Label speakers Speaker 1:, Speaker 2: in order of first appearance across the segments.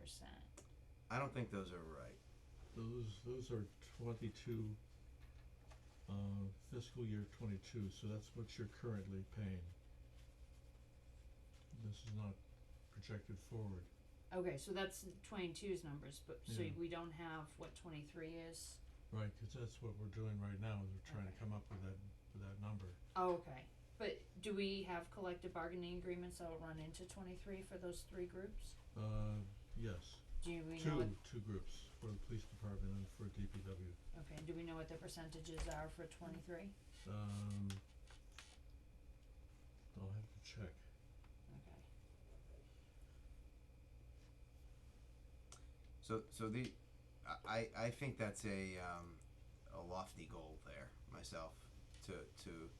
Speaker 1: percent.
Speaker 2: I don't think those are right.
Speaker 3: Those, those are twenty-two, uh, fiscal year twenty-two, so that's what you're currently paying. This is not projected forward.
Speaker 1: Okay, so that's 22's numbers, but so
Speaker 3: Yeah.
Speaker 1: we don't have what 23 is.
Speaker 3: Right, 'cause that's what we're doing right now, is we're trying to
Speaker 1: Okay.
Speaker 3: come up with that, with that number.
Speaker 1: Oh, okay. But do we have collective bargaining agreements that will run into 23 for those three groups?
Speaker 3: Uh, yes,
Speaker 1: Do we know?
Speaker 3: two,
Speaker 1: What,
Speaker 3: two groups, for the police department and for DPW.
Speaker 1: okay. Do we know what the percentages are for 23?
Speaker 3: Um, I'll have to check.
Speaker 1: Okay.
Speaker 2: So, so the, I, I I think that's a, um, a lofty goal there myself to, to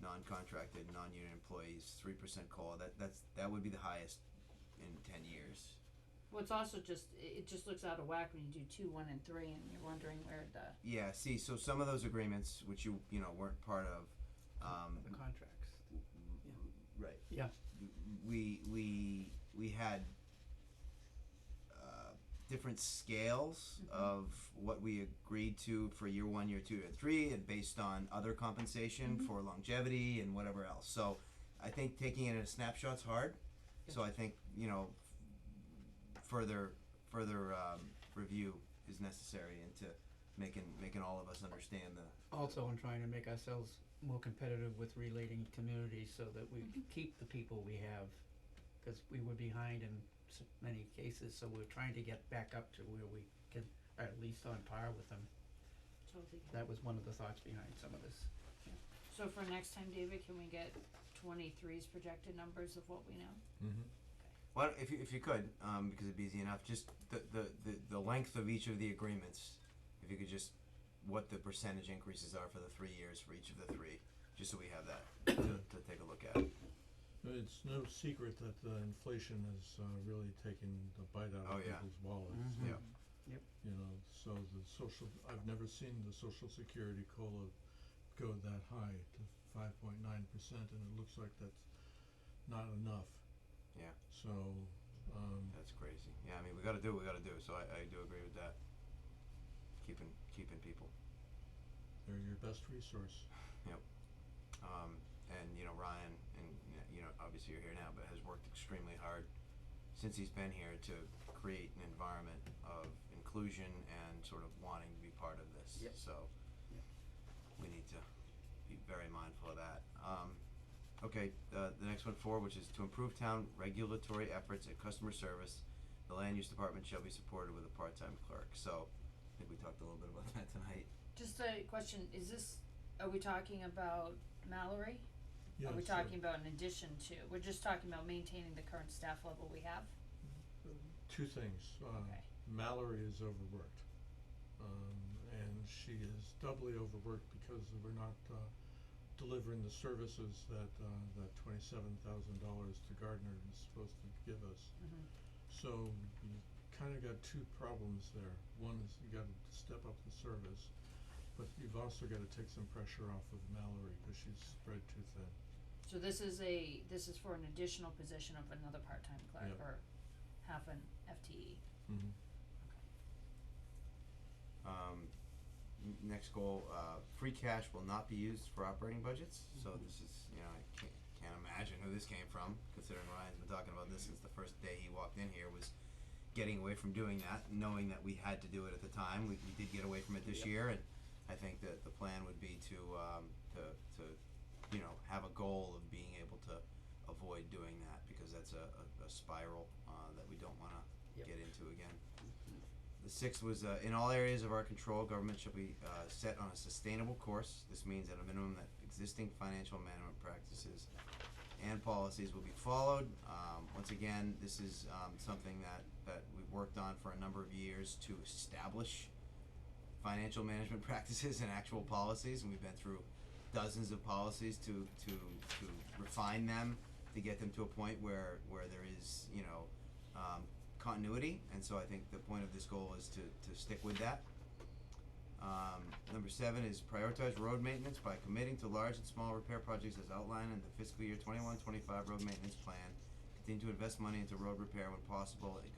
Speaker 2: non-contracted, non-union employees, three percent call. That, that's, that would be the highest in ten years.
Speaker 1: Well, it's also just it it just looks out of whack when you do two, one, and three, and you're wondering where the
Speaker 2: Yeah, see, so some of those agreements, which you, you know, weren't part of, um,
Speaker 4: the contracts.
Speaker 2: right.
Speaker 4: Yeah.
Speaker 2: We, we, we had, uh, different scales
Speaker 1: Mhm.
Speaker 2: of what we agreed to for year one, year two, year three, and based on other compensation
Speaker 1: Mhm.
Speaker 2: for longevity and whatever else. So I think taking it in a snapshot's hard. So I think, you know, further, further, um, review is necessary into making, making all of us understand the,
Speaker 4: Also, in trying to make ourselves more competitive with relating communities so that we c- keep the people we have, cause we were behind in s many cases, so we're trying to get back up to where we can, are at least on par with them.
Speaker 1: totally.
Speaker 4: That was one of the thoughts behind some of this.
Speaker 1: So for next time, David, can we get 23's projected numbers of what we know?
Speaker 3: Mm-hmm.
Speaker 2: Well, if you, if you could, um, because it'd be easy enough, just the, the, the, the length of each of the agreements, if you could just, what the percentage increases are for the three years for each of the three, just so we have that to, to take a look at.
Speaker 3: It's no secret that uh, inflation has uh, really taken the bite out
Speaker 2: Oh,
Speaker 3: of
Speaker 2: yeah.
Speaker 3: people's wallets.
Speaker 1: Mm-hmm.
Speaker 2: Yeah.
Speaker 3: You know, so the social, I've never seen the social security COLA go that high to five point nine percent, and it looks like that's not enough.
Speaker 2: Yeah.
Speaker 3: So, um,
Speaker 2: That's crazy. Yeah, I mean, we gotta do what we gotta do, so I, I do agree with that. Keeping, keeping people.
Speaker 3: they're your best resource.
Speaker 2: Um, and, you know, Ryan, and, you know, obviously you're here now, but has worked extremely hard since he's been here to create an environment of inclusion and sort of wanting to be part of this.
Speaker 4: Yep.
Speaker 2: So,
Speaker 4: Yep.
Speaker 2: we need to be very mindful of that. Um, okay, uh, the next one, four, which is to improve town regulatory efforts and customer service, the land use department shall be supported with a part-time clerk. So, I think we talked a little bit about that tonight.
Speaker 1: Just a question, is this, are we talking about Mallory?
Speaker 3: Yeah,
Speaker 1: Are we
Speaker 3: so-
Speaker 1: talking about in addition to, we're just talking about maintaining the current staff level we have?
Speaker 3: Two things. Uh,
Speaker 1: Okay.
Speaker 3: Mallory is overworked. Um, and she is doubly overworked because we're not, uh, delivering the services that, uh, that twenty-seven thousand dollars to Gardner is supposed to give us.
Speaker 1: Mm-hmm.
Speaker 3: So you kinda got two problems there. One is you gotta step up the service, but you've also gotta take some pressure off of Mallory, cause she's spread too thin.
Speaker 1: So this is a, this is for an additional position of another part-time clerk
Speaker 3: Yep.
Speaker 1: or half an E. FTE?
Speaker 3: Mm-hmm.
Speaker 2: Um, n- next goal, uh, free cash will not be used for operating budgets, so this is, you know, I can't, can't imagine who this came from, considering Ryan's been talking about this since the first day he walked in here, was getting away from doing that, knowing that we had to do it at the time, we, we did get away from it this
Speaker 4: Yep.
Speaker 2: year, and I think that the plan would be to, um, to, to, you know, have a goal of being able to avoid doing that, because that's a, a, a spiral, uh, that we don't wanna
Speaker 4: Yep.
Speaker 2: get into again. The sixth was uh, in all areas of our control, government shall be uh, set on a sustainable course. This means at a minimum that existing financial management practices and policies will be followed. Um, once again, this is um, something that, that we've worked on for a number of years to establish financial management practices and actual policies, and we've been through dozens of policies to, to, to refine them, to get them to a point where, where there is, you know, um, continuity, and so I think the point of this goal is to, to stick with that. Um, number seven is prioritize road maintenance by committing to large and small repair projects as outlined in the fiscal year 21-25 road maintenance plan. Continue to invest money into road repair when possible.